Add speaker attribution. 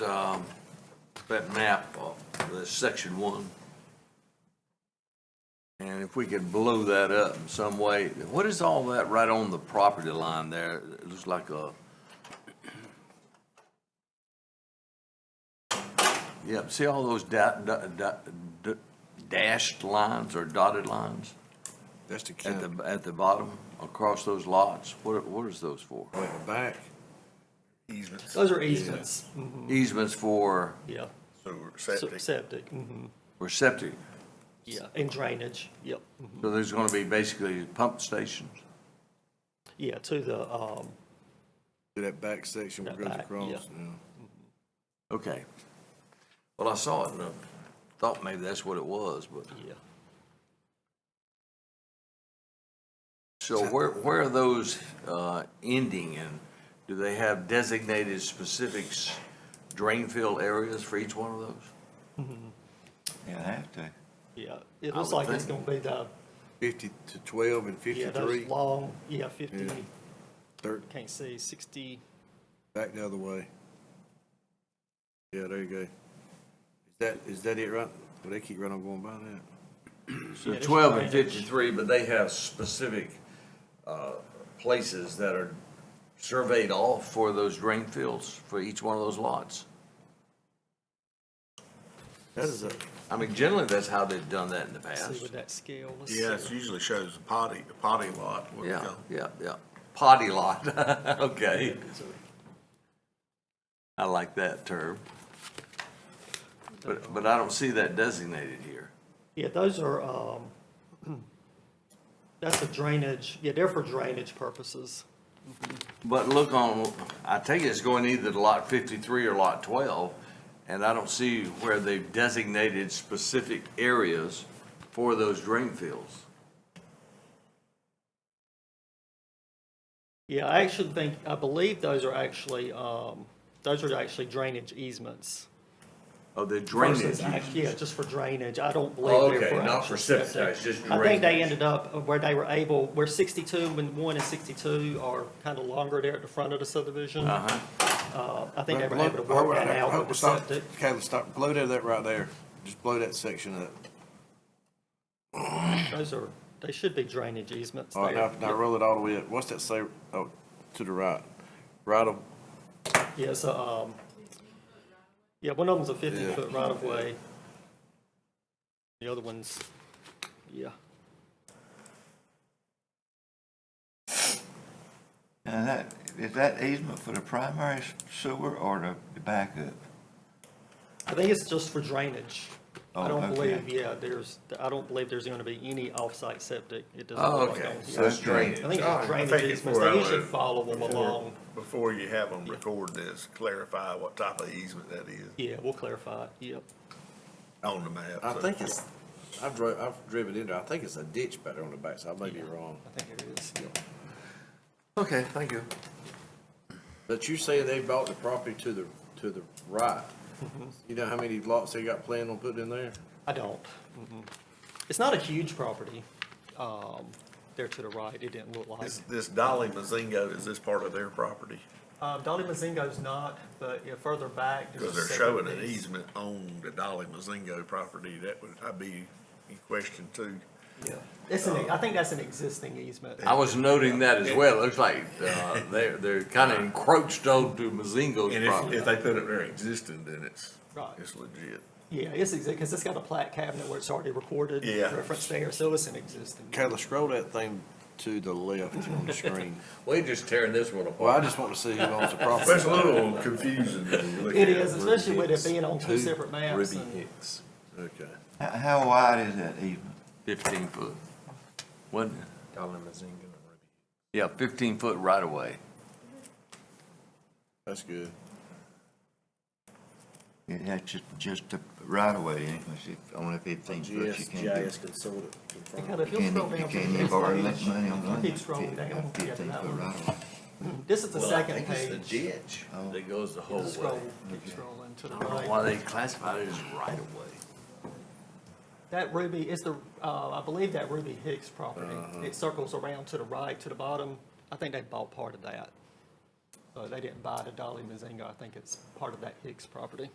Speaker 1: um, that map of the section one. And if we could blow that up in some way, what is all that right on the property line there? It looks like a. Yep, see all those da, da, da, da- dashed lines or dotted lines
Speaker 2: That's the
Speaker 1: at
Speaker 2: county,
Speaker 1: the, at the bottom across those lots? What, are- what is those for?
Speaker 2: way back.
Speaker 3: Easements.
Speaker 4: Those are easements, Mm-hmm.
Speaker 1: Easements for,
Speaker 4: yeah.
Speaker 2: So
Speaker 4: So-
Speaker 2: septic,
Speaker 4: Septic, mhm,
Speaker 1: for septic?
Speaker 4: yeah, and drainage, yep.
Speaker 1: So there's gonna be basically pump stations?
Speaker 4: Yeah, to the, um,
Speaker 2: to that back section where it
Speaker 4: That
Speaker 2: goes
Speaker 4: back,
Speaker 2: across,
Speaker 4: yeah.
Speaker 2: yeah.
Speaker 1: Okay. Well, I saw it and I thought maybe that's what it was, but,
Speaker 4: yeah.
Speaker 1: so where, where are those, uh, ending and do they have designated specific s- drain field areas for each one of those?
Speaker 5: You'll have to.
Speaker 4: Yeah, it
Speaker 1: I
Speaker 4: looks
Speaker 1: would
Speaker 4: like it's gonna
Speaker 1: think.
Speaker 4: be the,
Speaker 2: Fifty to twelve and
Speaker 4: yeah, those
Speaker 2: fifty-three,
Speaker 4: long, yeah, fifty,
Speaker 2: Yeah. third,
Speaker 4: can't see, sixty,
Speaker 2: back the other way. Yeah, there you go. Is that, is that it right? Well, they keep running on going by that.
Speaker 1: So
Speaker 4: Yeah, there's
Speaker 1: twelve and
Speaker 4: drainage.
Speaker 1: fifty-three, but they have specific, uh, places that are surveyed off for those drain fields for each one of those lots.
Speaker 2: That is a,
Speaker 1: I mean, generally, that's how they've done that in the
Speaker 4: see
Speaker 1: past.
Speaker 4: with that scale. let's
Speaker 3: Yeah, it
Speaker 4: see.
Speaker 3: usually shows the potty, the potty lot. where we
Speaker 1: Yeah,
Speaker 3: go.
Speaker 1: yeah, yeah. Potty lot, okay. I like that term. But, but I don't see that designated here.
Speaker 4: Yeah, those are, um, that's a drainage, yeah, they're for drainage purposes.
Speaker 1: But look on, I take it it's going either to lot fifty-three or lot twelve, and I don't see where they've designated specific areas for those drain fields.
Speaker 4: Yeah, I actually think, I believe those are actually, um, those are actually drainage easements.
Speaker 1: Oh, the drainage.
Speaker 4: versus act-
Speaker 1: uses.
Speaker 4: Yeah, just for drainage. I don't
Speaker 1: Oh,
Speaker 4: believe they're
Speaker 1: okay,
Speaker 4: for.
Speaker 1: not for
Speaker 4: actual
Speaker 1: septic,
Speaker 4: septic.
Speaker 1: it's just
Speaker 4: I think
Speaker 1: drainage.
Speaker 4: they ended up where they were able, where sixty-two and one and sixty-two are kind of longer there at the front of the subdivision. Uh-huh. I think they were able to work that out with the septic.
Speaker 2: Caleb, stop, blow that, that right there. Just blow that section up.
Speaker 4: Those are, they should be drainage easements
Speaker 1: Oh,
Speaker 2: All right, now,
Speaker 4: there.
Speaker 2: now roll it all the way up. What's that say? Oh, to the right. Right of,
Speaker 4: Yeah, so, um, yeah, one of them's a fifty-foot right-of-way. The other one's, yeah,
Speaker 5: Now that, is that easement for the primary sewer or the- the backup?
Speaker 4: I think it's just for drainage. I
Speaker 5: Oh,
Speaker 4: don't
Speaker 5: okay.
Speaker 4: believe, yeah, there's, I don't believe there's gonna be any off-site septic. It doesn't
Speaker 1: Oh,
Speaker 4: look like
Speaker 1: okay,
Speaker 4: on here.
Speaker 1: so it's
Speaker 5: Okay.
Speaker 1: drainage.
Speaker 4: I think
Speaker 3: Oh, I
Speaker 4: it's drainage
Speaker 3: think it's
Speaker 4: easements,
Speaker 3: where I
Speaker 4: they usually
Speaker 3: live.
Speaker 4: follow them along.
Speaker 3: Before you have them record this, clarify what type of easement that is
Speaker 4: Yeah, we'll clarify, it. yep.
Speaker 3: on the map.
Speaker 2: I
Speaker 3: so-
Speaker 2: think it's, I've drove, I've driven in there. I think it's a ditch back there on the back, so I may be wrong.
Speaker 4: I think it is.
Speaker 1: Okay, thank you.
Speaker 2: But you say they bought the property to the, to the right. You know how many lots they got planned on putting in there?
Speaker 4: I don't. Mhm. It's not a huge property, um, there to the right, it didn't look like.
Speaker 3: This, this Dolly Mazingo, is this part of their property?
Speaker 4: Um, Dolly Mazingo's not, but yeah, further back. there's a
Speaker 3: Because they're
Speaker 4: separate
Speaker 3: showing an
Speaker 4: piece.
Speaker 3: easement on the Dolly Mazingo property. That would, I'd be in question too.
Speaker 4: It's an, I think that's an existing easement.
Speaker 1: I was noting that as well. It looks like, uh, they're, they're kinda encroached onto Mazingo's
Speaker 3: And if,
Speaker 1: property.
Speaker 3: if they put it there existing, then it's,
Speaker 4: Right.
Speaker 3: it's legit.
Speaker 4: Yeah, it's exist, because it's got a plat cabinet where it's already recorded,
Speaker 3: Yeah.
Speaker 4: reference there, so it's an existing.
Speaker 2: Kayla, scroll that thing to the left on the screen.
Speaker 1: We're just tearing this one
Speaker 2: Well, I
Speaker 1: apart.
Speaker 2: just want to see who owns the
Speaker 3: But it's a
Speaker 2: property.
Speaker 3: little confusing. when you look
Speaker 4: It
Speaker 3: at
Speaker 4: is, especially with it being on two
Speaker 2: Who?
Speaker 4: separate maps. and-
Speaker 1: Hicks.
Speaker 2: Okay.
Speaker 5: How, how wide is that easement?
Speaker 1: Fifteen foot. Wasn't it? Yeah, fifteen foot right away.
Speaker 2: That's good.
Speaker 5: Yeah, That's just, just the right of way, anyway, It's only fifteen foot, you can't do.
Speaker 2: consultant.
Speaker 4: And kind of, if
Speaker 5: You
Speaker 4: you'll scroll down
Speaker 5: can't, you
Speaker 4: to
Speaker 5: can't even borrow
Speaker 4: the
Speaker 5: that
Speaker 4: next page.
Speaker 5: money on
Speaker 4: Keep
Speaker 5: one
Speaker 4: scrolling down,
Speaker 5: fifteen,
Speaker 4: yeah, to
Speaker 5: fifteen
Speaker 4: that
Speaker 5: foot
Speaker 4: one.
Speaker 5: right of way.
Speaker 4: This is the second
Speaker 1: It's the
Speaker 4: page.
Speaker 1: ditch that goes the whole
Speaker 4: Just
Speaker 1: way.
Speaker 4: Scroll, keep scrolling to the
Speaker 1: I don't know why
Speaker 4: right.
Speaker 1: they classified it as right of way.
Speaker 4: That Ruby is the, uh, I believe that Ruby Hicks
Speaker 1: Uh-huh.
Speaker 4: property. It circles around to the right, to the bottom. I think they bought part of that. Uh, They didn't buy it at Dolly Mazinga. I think it's part of that Hicks property.